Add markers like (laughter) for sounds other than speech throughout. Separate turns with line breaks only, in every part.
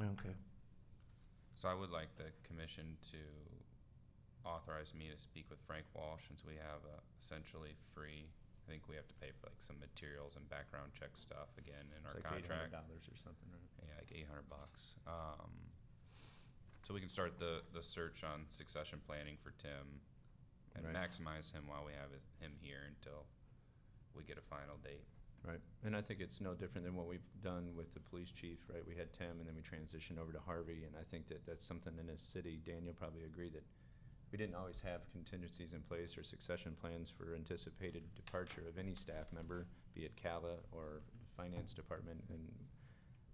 Okay.
So I would like the commission to authorize me to speak with Frank Walsh since we have a essentially free, I think we have to pay for like some materials and background check stuff again in
It's
our
like eight hundred
contract.
dollars or something, right?
Yeah, like eight hundred bucks. Um, so we can start the, the search on succession planning for Tim and
Right.
maximize him while we have it- him here until we get a final date.
Right, and I think it's no different than what we've done with the police chief, right? We had Tim, and then we transitioned over to Harvey, and I think that that's something in this city, Daniel probably agree that we didn't always have contingencies in place or succession plans for anticipated departure of any staff member, be it CALA or finance department, and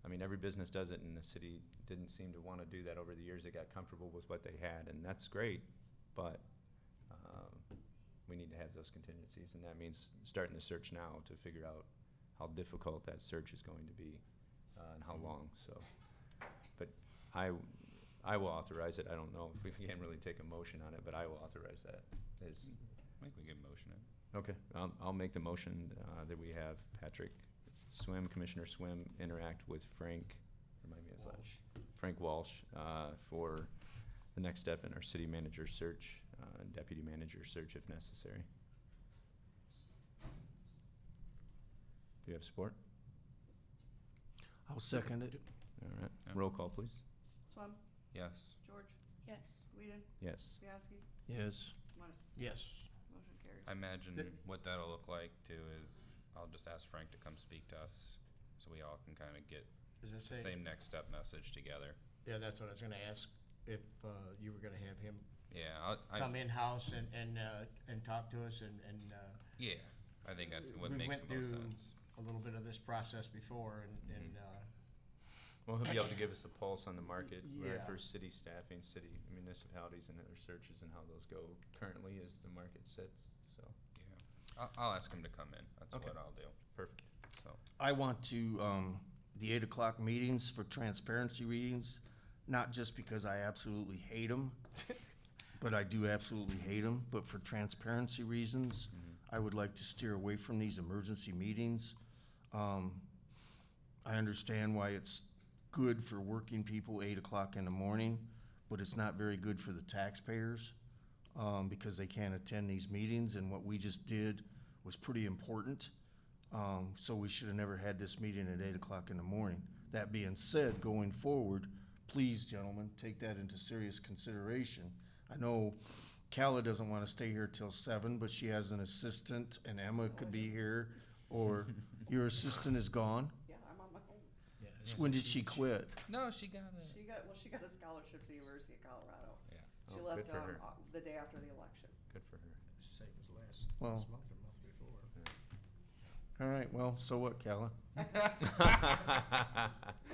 I mean, every business does it, and the city didn't seem to wanna do that over the years. They got comfortable with what they had, and that's great, but, um, we need to have those contingencies, and that means starting the search now to figure out how difficult that search is going to be, uh, and how long, so. But I, w- I will authorize it, I don't know if we can really take a motion on it, but I will authorize that, is,
I think we can motion it.
okay, um, I'll make the motion, uh, that we have Patrick Swim, Commissioner Swim, interact with Frank, remind me of his last. Frank Walsh, uh, for the next step in our city manager search, uh, and deputy manager search if necessary. Do you have support?
I'll second it.
All right,
Yeah.
roll call, please.
Swam,
Yes.
George,
Yes.
Whedon,
Yes,
Bianski,
Yes.
Money.
Yes.
Motion carries.
I imagine
Th-
what that'll look like too is I'll just ask Frank to come speak to us so we all can kind of get
Is that
the
say?
same next step message together.
Yeah, that's what I was gonna ask, if, uh, you were gonna have him
Yeah, I, I,
come in-house and, and, uh, and talk to us and, and, uh,
yeah, I think that's what
We
makes
went
the most
through-
sense.
a little bit of this process before
Mm-hmm.
and, and, uh,
well, he'll be able to give us a pulse on the market, right,
Yeah.
for city staffing, city municipalities and their searches and how those go currently as the market sits, so,
Yeah, I'll, I'll ask him to come in, that's
Okay.
what I'll do,
perfect.
so.
I want to, um, the eight o'clock meetings for transparency readings, not just because I absolutely hate (laughs) them, but I do absolutely hate them, but for transparency reasons, I would like to steer away from these emergency meetings. Um, I understand why it's good for working people eight o'clock in the morning, but it's not very good for the taxpayers, um, because they can't attend these meetings, and what we just did was pretty important. Um, so we should have never had this meeting at eight o'clock in the morning. That being said, going forward, please, gentlemen, take that into serious consideration. I know Calla doesn't want to stay here till seven, but she has an assistant, and Emma could be here, or your assistant is gone.
Yeah, I'm on my own.
yeah.
When did she quit?
No, she got it.
She got, well, she got a scholarship to the University of Colorado.
Yeah.
She
Oh,
left,
good for
um,
her.
au- the day after the election.
Good for her.
Say it was last,
Well-
last month or month before.
All right, well, so what, Calla?
(laughs)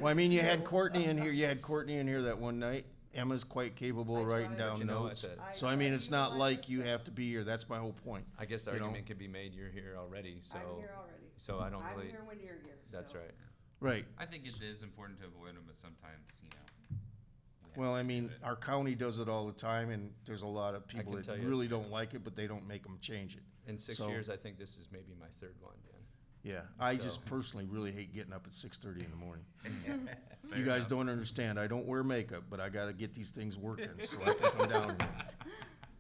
Well, I mean, you had Courtney in here, you had Courtney in here that one night. Emma's quite capable of
I
writing
tried. But
down
You know,
notes.
at the-
So I mean,
tried
it's
to
not
utilize
like
it,
you
so
have to be here. That's my whole point.
I guess the
You know.
argument could be made, you're here already, so.
I'm here already.
So I don't
I'm
really,
here when you're here, so.
that's right.
Right.
I think it is important to avoid them, but sometimes, you know. we have
Well,
to
I
do
mean,
it.
our county does it all the time and there's a lot of people
can
that
tell you-
really don't like it, but they don't make them change it.
In six
So-
years, I think this is maybe my third one, Dan.
Yeah, I
So-
just personally really hate getting up at six thirty in the morning.
Fair
You guys
enough.
don't understand. I don't wear makeup, but I gotta get these things working so I can come down here.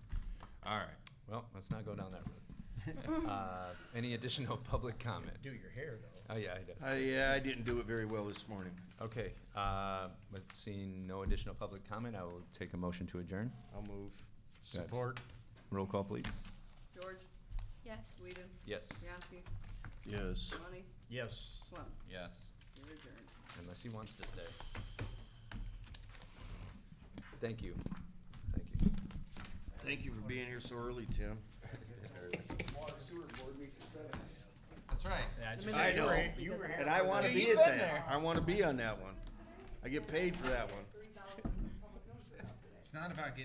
(laughs) All right,
Well, let's not go down that
(laughs)
road. Uh, any additional (laughs) public comment?
Do your hair though.
Oh, yeah, it does.
I, yeah, I didn't do it very well this morning.
Okay, uh, with seeing no additional public comment, I will take a motion to adjourn.
I'll move.
Support. Roll call, please.
George,
Yes.
Whedon,
Yes,
Bianski,
Yes.
Money,
Yes.
Swam,
yes.
you're adjourned.
unless he wants to stay. Thank you. Thank you.
Thank you for being here so early, Tim.
That's right.
I know,
You were
and I wanna
Yeah,
be
you've
at
been
that.
there.
I wanna be on that one. I get paid for that one.
Three thousand public notice out today.
It's not about getting